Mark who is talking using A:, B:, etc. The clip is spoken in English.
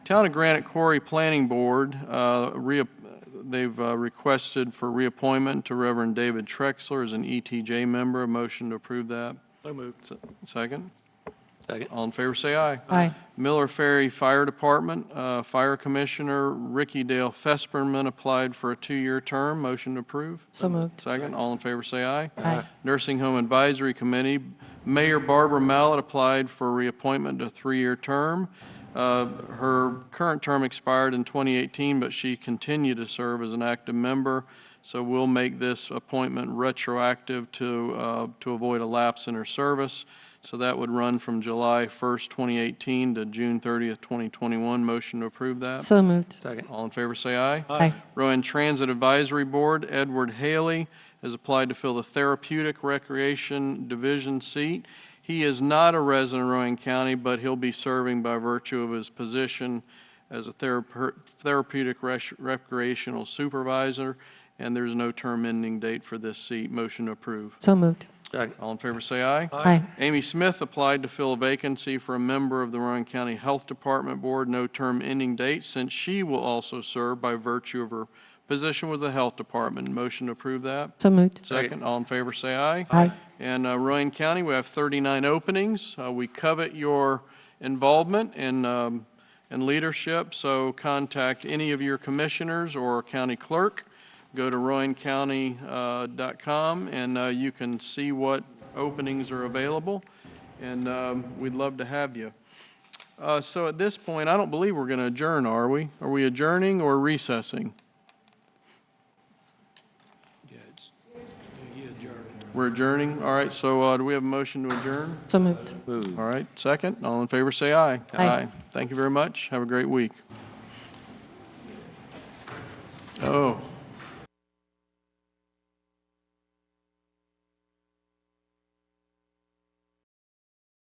A: Town of Granite Quarry Planning Board, uh, reap- they've uh, requested for reappointment to Reverend David Trexler as an ETJ member. A motion to approve that.
B: So moved.
A: Se- Second?
B: Second.
A: All in favor, say aye.
C: Aye.
A: Miller Ferry Fire Department, uh, Fire Commissioner Ricky Dale Fesperman applied for a two-year term. Motion to approve.
C: So moved.
A: Second, all in favor, say aye.
C: Aye.
A: Nursing Home Advisory Committee, Mayor Barbara Mallett applied for reappointment to a three-year term. Uh, Her current term expired in 2018, but she continued to serve as an active member, so we'll make this appointment retroactive to, uh, to avoid a lapse in her service. So that would run from July 1st, 2018 to June 30th, 2021. Motion to approve that?
C: So moved.
B: Second.
A: All in favor, say aye.
C: Aye.
A: Rowan Transit Advisory Board, Edward Haley has applied to fill the Therapeutic Recreation Division seat. He is not a resident of Rowan County, but he'll be serving by virtue of his position as a therape- therapeutic res- recreational supervisor, and there's no term ending date for this seat. Motion to approve.
C: So moved.
B: Second.
A: All in favor, say aye.
C: Aye.
A: Amy Smith applied to fill a vacancy for a member of the Rowan County Health Department Board, no term ending date, since she will also serve by virtue of her position with the Health Department. Motion to approve that?
C: So moved.
A: Second, all in favor, say aye.
C: Aye.
A: And uh, Rowan County, we have 39 openings. Uh, We covet your involvement and, um, and leadership, so contact any of your commissioners or county clerk. Go to rowancounty.com, and uh, you can see what openings are available, and um, we'd love to have you. Uh, So at this point, I don't believe we're going to adjourn, are we? Are we adjourning or recessing?
B: Yeah, it's, yeah, adjourned.
A: We're adjourning, all right, so uh, do we have a motion to adjourn?
C: So moved.
A: All right, second, all in favor, say aye.
C: Aye.
A: Thank you very much, have a great week. Oh.